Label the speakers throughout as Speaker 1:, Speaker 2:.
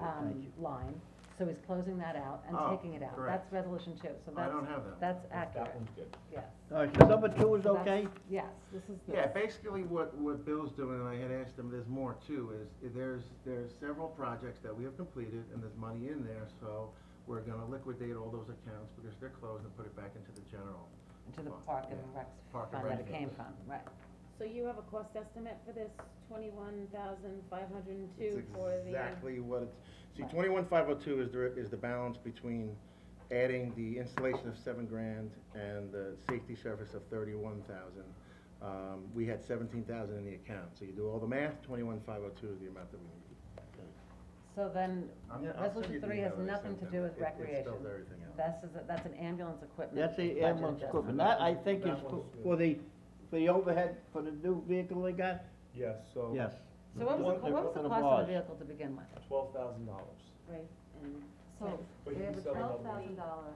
Speaker 1: um, line, so he's closing that out and
Speaker 2: Oh,
Speaker 1: taking it out.
Speaker 2: correct.
Speaker 1: That's resolution two, so
Speaker 2: I
Speaker 1: that's,
Speaker 2: don't have that.
Speaker 1: that's accurate,
Speaker 3: That one's good.
Speaker 1: yes.
Speaker 4: All right, so number two is
Speaker 1: So that's-
Speaker 4: okay?
Speaker 1: Yes, this is the.
Speaker 2: Yeah, basically what, what Bill's doing, and I had asked him, there's more too, is there's, there's several projects that we have completed and there's money in there, so we're gonna liquidate all those accounts because they're closed and put it back into the general.
Speaker 1: To the
Speaker 2: fund,
Speaker 1: park and
Speaker 2: yeah.
Speaker 1: rec
Speaker 2: Park and
Speaker 1: fund that
Speaker 2: Rec
Speaker 1: it came
Speaker 2: fund.
Speaker 1: from, right.
Speaker 5: So you have a cost estimate for this twenty-one thousand five hundred and two
Speaker 2: That's
Speaker 5: for the.
Speaker 2: Exactly what it's, see,
Speaker 1: Right.
Speaker 2: twenty-one five oh two is the, is the balance between adding the installation of seven grand and the safety service of thirty-one thousand. Um, we had seventeen thousand in the account, so you do all the math, twenty-one five oh two is the amount that we need.
Speaker 1: So then,
Speaker 2: I'm gonna- I'll send
Speaker 1: resolution
Speaker 2: you the
Speaker 1: three
Speaker 2: email
Speaker 1: has
Speaker 2: that I
Speaker 1: nothing
Speaker 2: sent
Speaker 1: to
Speaker 2: them.
Speaker 1: do with
Speaker 2: It- it spells
Speaker 1: recreation.
Speaker 2: everything out.
Speaker 1: This is, a- that's an ambulance equipment.
Speaker 4: That's the
Speaker 1: budget
Speaker 4: ambulance
Speaker 1: adjustment.
Speaker 4: equipment, that, I think is
Speaker 3: That
Speaker 4: for-
Speaker 3: one's-
Speaker 4: for the, for the overhead, for the new vehicle they got?
Speaker 3: Yes, so.
Speaker 1: Oh.
Speaker 4: Yes.
Speaker 1: So what was the,
Speaker 4: One-
Speaker 1: co- what was the
Speaker 4: one
Speaker 1: cost of
Speaker 4: was.
Speaker 1: the vehicle to begin with?
Speaker 3: Twelve thousand dollars.
Speaker 5: Right, and
Speaker 1: So,
Speaker 3: But
Speaker 1: we
Speaker 3: you
Speaker 1: have a
Speaker 3: still have
Speaker 1: twelve
Speaker 3: another
Speaker 1: thousand dollar,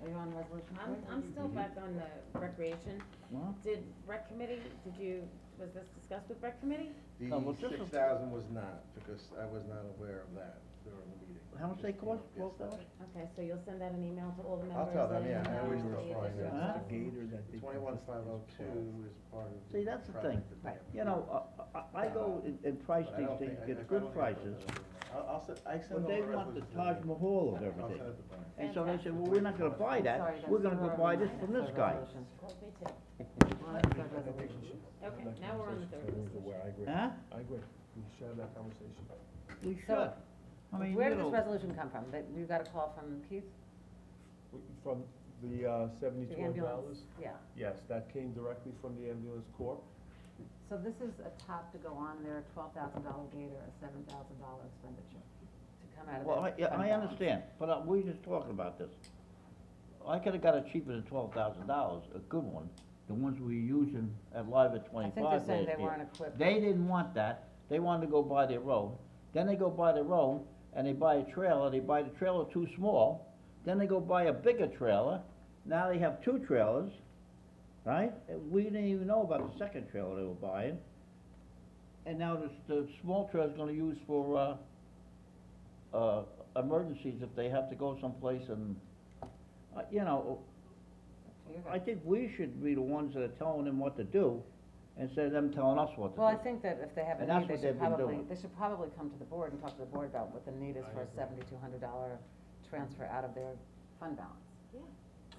Speaker 1: are you on resolution
Speaker 5: I'm,
Speaker 1: three?
Speaker 5: I'm still back on the recreation. Did rec committee, did you, was this discussed with rec committee?
Speaker 4: No, well,
Speaker 2: The
Speaker 4: this is-
Speaker 2: six thousand was not, because I was not aware of that during the meeting.
Speaker 4: How much they
Speaker 2: Just, you know,
Speaker 4: cost, twelve thousand?
Speaker 5: Okay, so you'll send out an email to all the
Speaker 2: I'll
Speaker 5: members.
Speaker 2: tell them,
Speaker 5: letting
Speaker 2: yeah, I
Speaker 5: know
Speaker 2: always
Speaker 5: the
Speaker 2: tell them.
Speaker 5: additional
Speaker 4: Huh?
Speaker 5: stuff.
Speaker 2: The twenty-one five oh two is part of. the
Speaker 4: See, that's the
Speaker 2: project
Speaker 4: thing.
Speaker 2: that they have.
Speaker 4: You know, I- I, I go and- and price
Speaker 2: Uh, But I
Speaker 4: these
Speaker 2: don't
Speaker 4: things,
Speaker 2: think- I- I
Speaker 4: get
Speaker 2: don't
Speaker 4: good
Speaker 2: think
Speaker 4: prices,
Speaker 2: I'll, I'll, send- I send
Speaker 4: but they
Speaker 2: all the
Speaker 4: want the
Speaker 2: resolutions
Speaker 4: Taj
Speaker 2: to you.
Speaker 4: Mahal of
Speaker 2: I'll
Speaker 4: everything.
Speaker 2: send it to Brian.
Speaker 4: And so they said, well, we're not gonna buy
Speaker 1: Sorry,
Speaker 4: that,
Speaker 1: that's
Speaker 4: we're gonna
Speaker 1: the
Speaker 4: go
Speaker 1: wrong
Speaker 4: buy this
Speaker 1: line.
Speaker 4: from
Speaker 1: That's
Speaker 4: this
Speaker 1: the
Speaker 4: guy.
Speaker 1: resolution.
Speaker 5: Well, me too.
Speaker 1: Well, that's the resolution.
Speaker 5: Okay, now we're on the third resolution.
Speaker 3: Where I agree.
Speaker 4: Huh?
Speaker 3: I agree. We should have that conversation.
Speaker 4: We
Speaker 1: So,
Speaker 4: should. I mean,
Speaker 1: Where
Speaker 4: you
Speaker 1: did this
Speaker 4: know,
Speaker 1: resolution come from? That you got a call from Keith,
Speaker 3: We- From the uh,
Speaker 1: the
Speaker 3: seventy-two
Speaker 1: ambulance?
Speaker 3: dollars?
Speaker 1: Yeah,
Speaker 3: Yes, that came directly from the ambulance corps.
Speaker 1: so this is a top to go on there, a twelve thousand dollar gate or a seven thousand dollar expenditure to come out of that.
Speaker 4: well, I, yeah,
Speaker 1: fund
Speaker 4: I
Speaker 1: balance.
Speaker 4: understand, but uh, we just talking about this. I could've got it cheaper than twelve thousand dollars, a good one, the ones we using at Live at
Speaker 1: I
Speaker 4: twenty-five
Speaker 1: think they're
Speaker 4: last
Speaker 1: saying they
Speaker 4: year.
Speaker 1: weren't equipped.
Speaker 4: They didn't want that, they wanted to go buy their road, then they go buy their road, and they buy a trailer, they buy the trailer too small, then they go buy a bigger trailer, now they have two trailers, right? And We didn't even know about the second trailer they were buying, and now the, the small trailer's gonna use for, uh, uh, emergencies if they have to go someplace and, uh, you know,
Speaker 1: You're
Speaker 4: I
Speaker 1: good.
Speaker 4: think we should be the ones that are telling them what to do, instead of them telling us what to do.
Speaker 1: Well, I think that if they have a
Speaker 4: And that's
Speaker 1: need, they
Speaker 4: what
Speaker 1: should
Speaker 4: they've been
Speaker 1: probably,
Speaker 4: doing.
Speaker 1: they should probably come to the board and talk to the board about what the need is
Speaker 3: I
Speaker 1: for a
Speaker 3: agree.
Speaker 1: seventy-two hundred dollar transfer out of their fund balance.
Speaker 5: Yeah.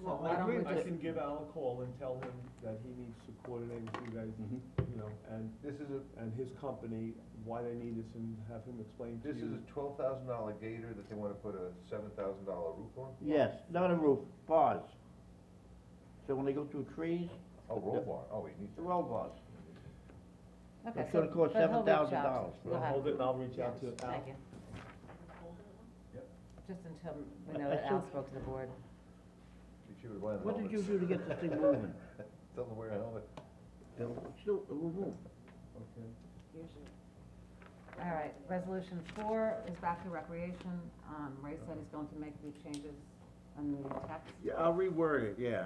Speaker 1: So
Speaker 4: Well, I
Speaker 1: why don't
Speaker 4: agree
Speaker 1: we
Speaker 4: with
Speaker 3: I
Speaker 1: just-
Speaker 3: can give Al a call and tell him that he needs to coordinate with you guys,
Speaker 2: Mhm.
Speaker 3: you know, and this is a, and his company, why they need this and have him explain to you.
Speaker 6: This is a twelve thousand dollar gator that they wanna put a seven thousand dollar roof on?
Speaker 4: Yes, not a roof, bars. So when they go through trees,
Speaker 6: Oh, roll bar, oh, he needs
Speaker 4: the
Speaker 6: to.
Speaker 4: roll bars.
Speaker 1: Okay,
Speaker 4: It's
Speaker 1: so-
Speaker 4: gonna cost
Speaker 1: but he'll reach out.
Speaker 4: $7,000 for
Speaker 1: We'll
Speaker 3: I'll
Speaker 1: have-
Speaker 3: hold it and I'll reach out to Al.
Speaker 1: Thank you.
Speaker 3: Yep.
Speaker 1: Just until we
Speaker 4: I-
Speaker 1: know
Speaker 4: I
Speaker 1: that Al
Speaker 4: think-
Speaker 1: spoke to the board.
Speaker 6: She was wearing an
Speaker 4: What did you
Speaker 6: helmet.
Speaker 4: do to get this thing moving?
Speaker 6: Doesn't wear a helmet.
Speaker 4: Still, it will move.
Speaker 3: Okay.
Speaker 1: All right, resolution four is back to recreation. Um, Ray said he's going to make a few changes on the text,
Speaker 2: Yeah, I'll reword it, yeah.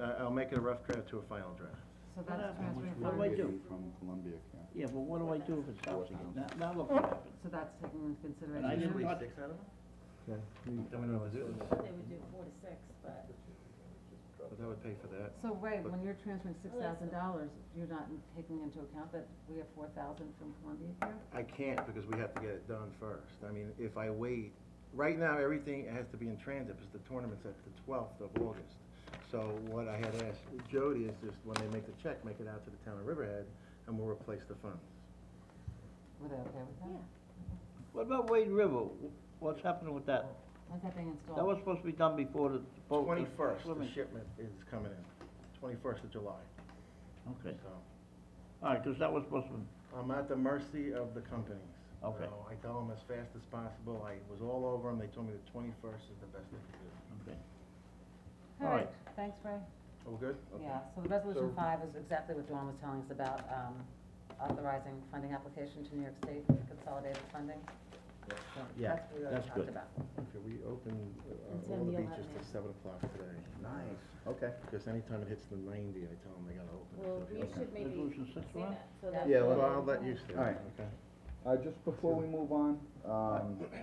Speaker 2: Uh, I'll make it a rough draft to a final draft.
Speaker 1: so that's
Speaker 4: How much
Speaker 1: transferring
Speaker 4: What do I
Speaker 1: funds,
Speaker 4: do?
Speaker 7: From Columbia County.
Speaker 4: Yeah, but what do I do if it stops again? Now, now look what happened.
Speaker 1: so that's taken into
Speaker 4: And I didn't
Speaker 1: consideration.
Speaker 4: touch,
Speaker 2: Six out of them?
Speaker 3: Okay.
Speaker 2: Then we don't wanna do this.
Speaker 5: They would do four to six, but
Speaker 2: But that would pay for that.
Speaker 1: So Ray, when you're transferring six
Speaker 5: Well, that's-
Speaker 1: thousand dollars, you're not taking into account that we have four thousand from Columbia here?
Speaker 2: I can't because we have to get it done first. I mean, if I wait, right now, everything has to be in transit because the tournament's at the twelfth of August. So what I had asked Jody is just when they make the check, make it out to the town of Riverhead and we'll replace the funds.
Speaker 1: Were they okay with that?
Speaker 5: Yeah.
Speaker 4: what about Wade River? What's happening with that?
Speaker 1: When's that being installed?
Speaker 4: That was supposed to be done before the boat. the
Speaker 2: Twenty-first, the
Speaker 4: swimming-
Speaker 2: shipment is coming in, twenty-first of July, so.
Speaker 4: Okay, all right, cause that was supposed to be,
Speaker 2: I'm at the mercy of the companies.
Speaker 4: Okay.
Speaker 2: So I tell them as fast as possible. I was all over them. They told me the twenty-first is the best they could do.
Speaker 4: okay.
Speaker 1: All
Speaker 4: All
Speaker 1: right,
Speaker 4: right.
Speaker 1: thanks, Ray.
Speaker 2: Oh, we're good? Okay.
Speaker 1: Yeah, so the resolution
Speaker 2: So-
Speaker 1: five is exactly what Dawn was telling us about, um, authorizing funding application to New York State consolidated funding. So
Speaker 4: Yeah,
Speaker 1: That's what we already
Speaker 4: that's
Speaker 1: talked
Speaker 4: good.
Speaker 1: about.
Speaker 2: Okay, we open
Speaker 5: It's
Speaker 2: uh,
Speaker 5: on
Speaker 2: all the
Speaker 5: the
Speaker 2: beaches till
Speaker 5: 11th.
Speaker 2: seven o'clock today.
Speaker 4: Nice.
Speaker 2: Okay. Because anytime it hits the ninety, I tell them they gotta open.
Speaker 5: well,
Speaker 2: it.
Speaker 5: you should maybe
Speaker 4: Resolution six,
Speaker 5: see
Speaker 4: Ron?
Speaker 5: that, so that's.
Speaker 2: Yeah, well, I'll let you
Speaker 7: All right.
Speaker 2: Okay.
Speaker 7: Uh, just before we move on, um,